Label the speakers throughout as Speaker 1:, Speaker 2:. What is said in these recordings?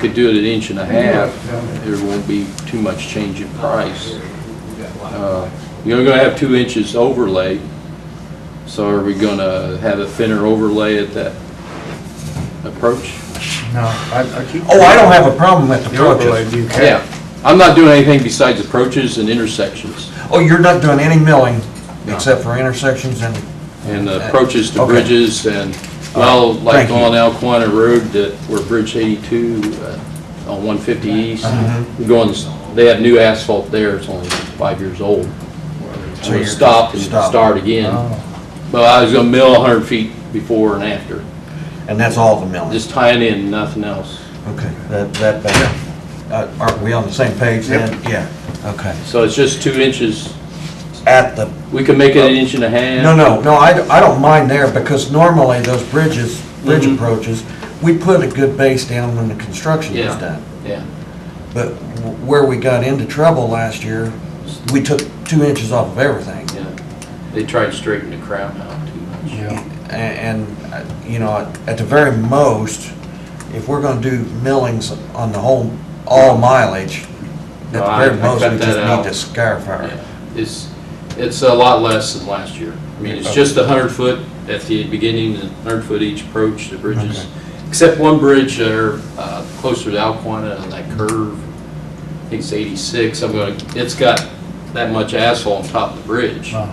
Speaker 1: Could do it an inch and a half, there won't be too much change in price. Uh, You're gonna have two inches overlay, so are we gonna have a thinner overlay at that approach?
Speaker 2: No, I, I keep.
Speaker 3: Oh, I don't have a problem with the
Speaker 2: The overlay,
Speaker 3: approaches.
Speaker 2: you can.
Speaker 1: Yeah, I'm not doing anything besides approaches and intersections,
Speaker 3: Oh, you're not doing any milling
Speaker 1: No.
Speaker 3: except for intersections and,
Speaker 1: and the approaches to
Speaker 3: Okay.
Speaker 1: bridges, and, well, like
Speaker 3: Thank you.
Speaker 1: on Alquina Road, that where Bridge 82, uh, on 150 East,
Speaker 3: Uh-huh.
Speaker 1: going, they have new asphalt there, it's only five years old.
Speaker 3: So
Speaker 1: So you
Speaker 3: you're-
Speaker 1: stop and
Speaker 3: stop.
Speaker 1: start again.
Speaker 2: Oh,
Speaker 1: But I was gonna mill 100 feet before and after,
Speaker 3: and that's all the milling.
Speaker 1: just tying in, nothing else.
Speaker 3: Okay, that, that, uh, are we on the same page then? Yeah, okay.
Speaker 1: So it's just two inches,
Speaker 3: At the,
Speaker 1: we can make it an inch and a half.
Speaker 3: Oh. no, no, no, I, don't- I don't mind there because normally those bridges, bridge
Speaker 1: Mhm.
Speaker 3: approaches, we put a good base down when the construction was
Speaker 1: Yeah.
Speaker 3: done.
Speaker 1: Yeah,
Speaker 3: But w- where we got into trouble last year, we took two inches off of everything.
Speaker 1: yeah, they tried to straighten the crown out too much.
Speaker 2: yeah.
Speaker 3: A- And, uh, you know, at- at the very most, if we're gonna do millings on the whole, all mileage, at
Speaker 1: No,
Speaker 3: the
Speaker 1: I-
Speaker 3: very
Speaker 1: I
Speaker 3: most,
Speaker 1: cut
Speaker 3: we
Speaker 1: that
Speaker 3: just
Speaker 1: out.
Speaker 3: need to scarify.
Speaker 1: Yeah, It's, it's a lot less than last year. I mean, it's just a hundred foot at the beginning, and hundred foot each approach to bridges. Except one bridge there, uh, closer to Alquina and that curve, I think it's eighty-six, I'm gonna, it's got that much asphalt on top of the bridge.
Speaker 2: Uh-huh.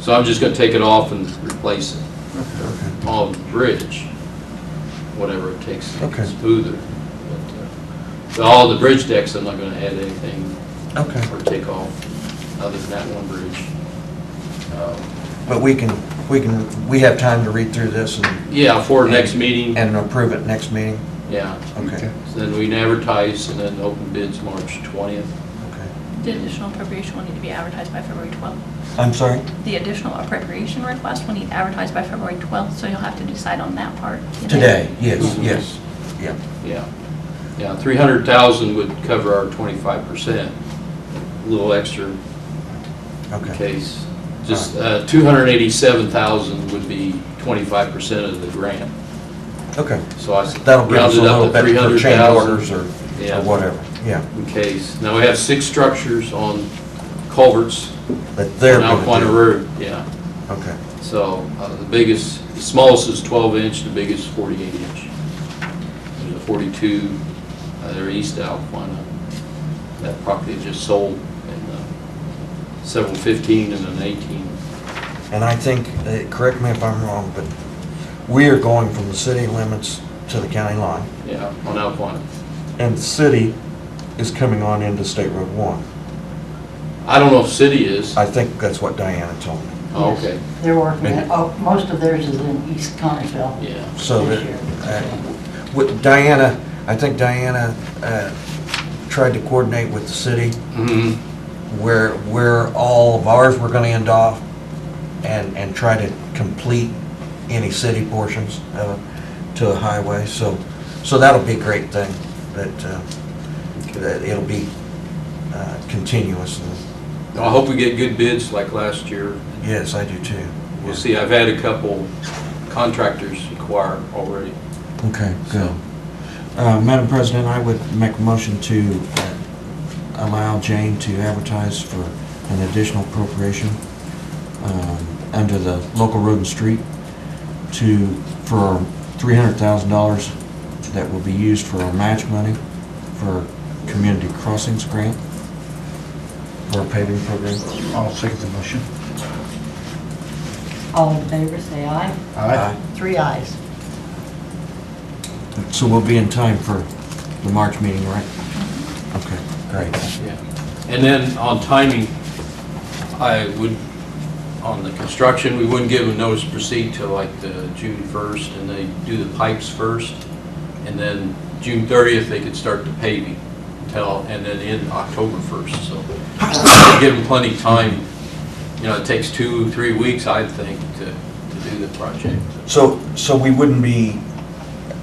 Speaker 1: So I'm just gonna take it off and replace it on the bridge, whatever it takes to
Speaker 3: Okay.
Speaker 1: get smoother. But, uh, So all the bridge decks, I'm not gonna add anything
Speaker 3: Okay,
Speaker 1: or take off, other than that one bridge. Um,
Speaker 3: but we can, we can, we have time to read through this and,
Speaker 1: Yeah, for next meeting,
Speaker 3: and approve it next meeting?
Speaker 1: yeah.
Speaker 3: Okay,
Speaker 1: So Then we can advertise and then open bids March 20th.
Speaker 3: okay.
Speaker 4: The additional appropriation will need to be advertised by February 12th.
Speaker 3: I'm sorry?
Speaker 4: The additional appropriation request will need advertised by February 12th, so you'll have to decide on that part.
Speaker 3: Today, yes, yes, yeah.
Speaker 1: Yeah. Yeah, 300,000 would cover our 25%, a little extra in
Speaker 3: Okay,
Speaker 1: case. Just uh, 287,000 would be 25% of the grant.
Speaker 3: okay.
Speaker 1: So I
Speaker 3: That'll give us
Speaker 1: rounded
Speaker 3: a little
Speaker 1: up to
Speaker 3: bit for change
Speaker 1: 300,000.
Speaker 3: orders or,
Speaker 1: Yeah.
Speaker 3: or whatever, yeah.
Speaker 1: In case. Now, we have six structures on culverts
Speaker 3: But they're
Speaker 1: on
Speaker 3: gonna
Speaker 1: Alquina
Speaker 3: do,
Speaker 1: Road, yeah.
Speaker 3: okay,
Speaker 1: So uh, the biggest, the smallest is 12 inch, the biggest is 48 inch. There's a 42, uh, they're east Alquina, that property just sold, and uh, several 15 and an 18.
Speaker 3: and I think, uh, correct me if I'm wrong, but we are going from the city limits to the county line,
Speaker 1: Yeah, on Alquina.
Speaker 3: and the city is coming on into State Road One.
Speaker 1: I don't know if city is.
Speaker 3: I think that's what Diana told me.
Speaker 1: Oh, Okay,
Speaker 5: They're working, it- oh, most of theirs is in East Connersville
Speaker 1: yeah.
Speaker 3: So
Speaker 5: this
Speaker 3: that,
Speaker 5: year.
Speaker 3: uh, with Diana, I think Diana uh, tried to coordinate with the city
Speaker 1: Mhm.
Speaker 3: where, where all of ours were gonna end off and, and try to complete any city portions of it to a highway, so, so that'll be a great thing, that, uh, that it'll be uh, continuous, and,
Speaker 1: I hope we get good bids like last year.
Speaker 3: yes, I do too.
Speaker 1: We'll see, I've had a couple contractors inquire already.
Speaker 3: Okay, good. Uh, Madam President, I would make a motion to uh, allow Jane to advertise for an additional appropriation um, under the local road and street to, for $300,000 that will be used for our match money for community crossings grant for our paving program.
Speaker 2: I'll second the motion.
Speaker 5: All in favor, say aye.
Speaker 2: Aye.
Speaker 5: Three ayes.
Speaker 3: So we'll be in time for the March meeting, right? Okay, great.
Speaker 1: Yeah, And then on timing, I would, on the construction, we wouldn't give them notice to proceed till like the June 1st, and they do the pipes first, and then June 30th, they could start the paving till, and then in October 1st, so give them plenty of time. You know, it takes two, three weeks, I think, to, to do the project.
Speaker 3: So, so we wouldn't be,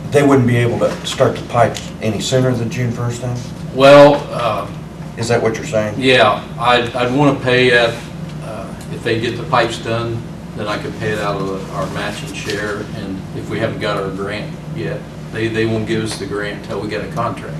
Speaker 3: they wouldn't be able to start the pipes any sooner than June 1st then?
Speaker 1: Well, uh,
Speaker 3: Is that what you're saying?
Speaker 1: Yeah, I'd, I'd want to pay at, uh, if they get the pipes done, then I could pay it out of our matching share, and if we haven't got our grant yet, They, they won't give us the grant until we get a contract.